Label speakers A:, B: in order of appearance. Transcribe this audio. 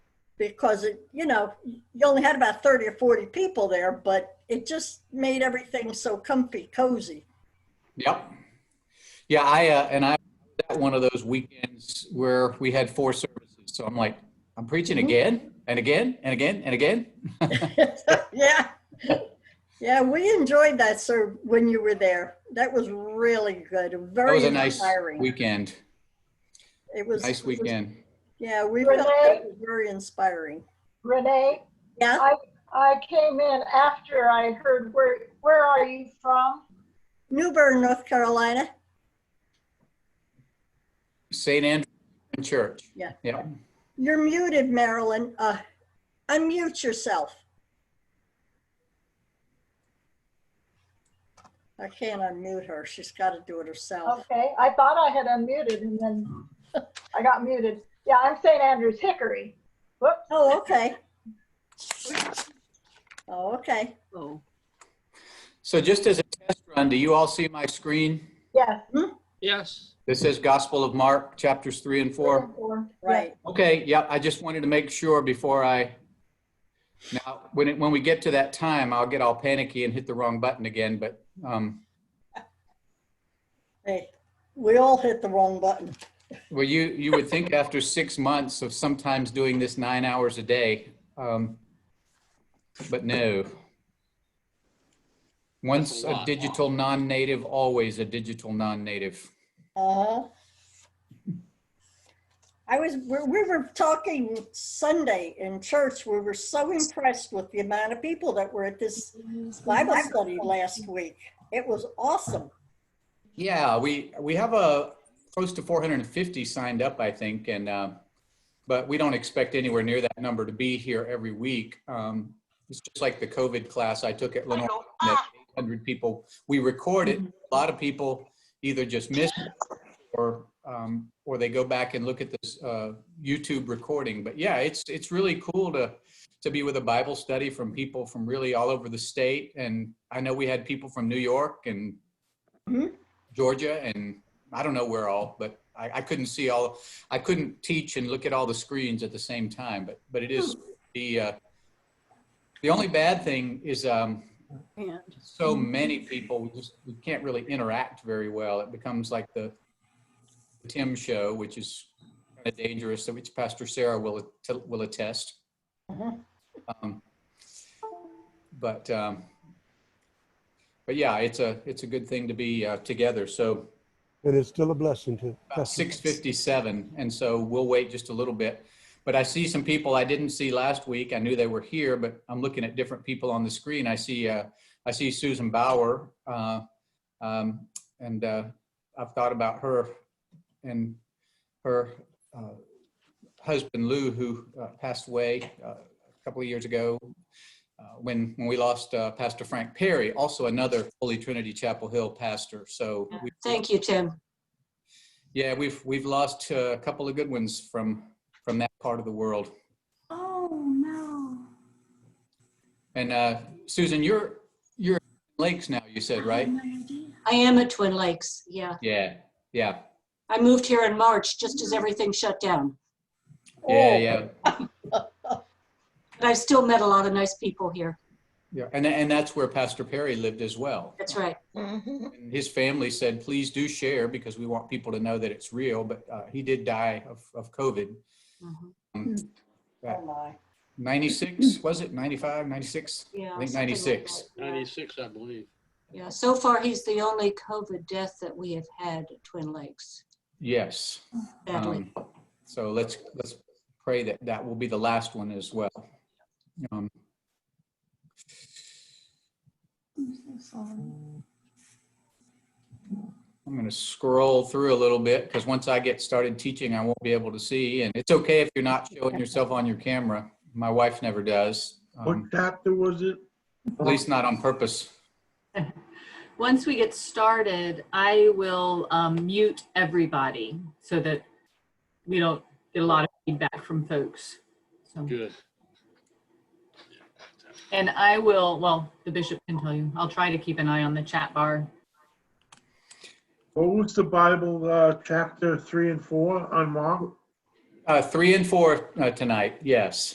A: because it, you know, you only had about 30 or 40 people there, but it just made everything so comfy, cozy.
B: Yep. Yeah, I, uh, and I, that one of those weekends where we had four services. So I'm like, I'm preaching
A: Mm-hmm.
B: again and again and again and again.
A: yeah. Yeah, we enjoyed that, sir, when you were there. That was really good.
B: That
A: Very
B: was a nice
A: inspiring.
B: weekend.
A: it was
B: Nice
A: it was-
B: weekend.
A: Yeah, we
C: Renee?
A: felt that was very inspiring.
C: Renee,
A: Yeah,
C: I came in after I heard where, where are you from?
A: New Bern, North Carolina.
B: St. Andrew Church.
A: Yeah.
B: Yeah.
A: You're muted, Marilyn. Uh, unmute yourself. I can't unmute her. She's got to do it herself.
C: Okay, I thought I had unmuted and then I got muted. Yeah, I'm St. Andrews Hickory. Whoops.
A: Oh, okay. Oh, okay.
D: Oh,
B: So just as a test run, do you all see my screen?
C: Yes.
D: yes.
B: This says Gospel of Mark, chapters three and four.
A: Right.
B: Okay, yeah, I just wanted to make sure before I, now, when, it- when we get to that time, I'll get all panicky and hit the wrong button again, but, um,
A: Hey, we all hit the wrong button.
B: well, you, you would think after six months of sometimes doing this nine hours a day, um, but no. Once a
E: lot.
B: digital non-native, always a digital non-native.
A: Uh-huh. I was, we we were talking Sunday in church. We were so impressed with the amount of people that were at this Bible study last week. It was awesome.
B: Yeah, we we have a close to 450 signed up, I think, and uh, but we don't expect anywhere near that number to be here every week. Um, it's just like the COVID class I took at Lenore, that 800 people. We record it. A lot of people either just miss it or um, or they go back and look at this uh, YouTube recording. But yeah, it's it's really cool to to be with a Bible study from people from really all over the state. And I know we had people from New York and Georgia and I don't know where all, but I, I couldn't see all, I couldn't teach and look at all the screens at the same time, but, but it is the, uh, the only bad thing is, um,
D: And
B: so many people, we just, we can't really interact very well. It becomes like the Tim show, which is kind of dangerous, which Pastor Sarah will, att- will attest.
A: Mhm.
B: Um, But, um, but yeah, it's a, it's a good thing to be, uh, together. So,
F: And it's still a blessing to.
B: about 657 and so we'll wait just a little bit but i see some people i didn't see last week i knew they were here but i'm looking at different people on the screen i see uh, i see susan bauer uh, um, and uh, i've thought about her and her uh, husband lou who uh, passed away uh, a couple of years ago uh, when when we lost uh, pastor frank perry also another holy trinity chapel hill pastor so we
G: Thank you, Tim.
B: yeah, we've we've lost uh, a couple of good ones from from that part of the world.
G: Oh, no.
B: And uh, Susan, you're you're in lakes now. You said right?
G: I am at Twin Lakes, yeah.
B: Yeah, yeah,
G: I moved here in March, just as everything shut down. Oh.
B: yeah, yeah,
G: But I've still met a lot of nice people here.
B: yeah. And and that's where Pastor Perry lived as well.
G: That's right.
B: And his family said, please do share because we want people to know that it's real. But uh, he did die of of COVID.
G: Mhm.
A: Oh, my.
B: 96 was it? 95, 96?
G: Yeah.
B: I think
G: something like
B: 96.
G: that, yeah.
E: 96, I believe.
G: Yeah, so far, he's the only COVID death that we have had at Twin Lakes,
B: Yes.
G: sadly.
B: Um, So let's, let's pray that that will be the last one as well. Um, I'm going to scroll through a little bit because once I get started teaching, I won't be able to see. And it's okay if you're not showing yourself on your camera. My wife never does,
H: What
B: um,
H: chapter was it?
B: at least not on purpose.
I: Once we get started, I will um, mute everybody so that we don't get a lot of feedback from folks. So,
E: Good.
I: and I will, well, the bishop can tell you, I'll try to keep an eye on the chat bar.
H: What was the Bible, uh, chapter three and four on Mark?
B: Uh, Three and four uh, tonight, yes.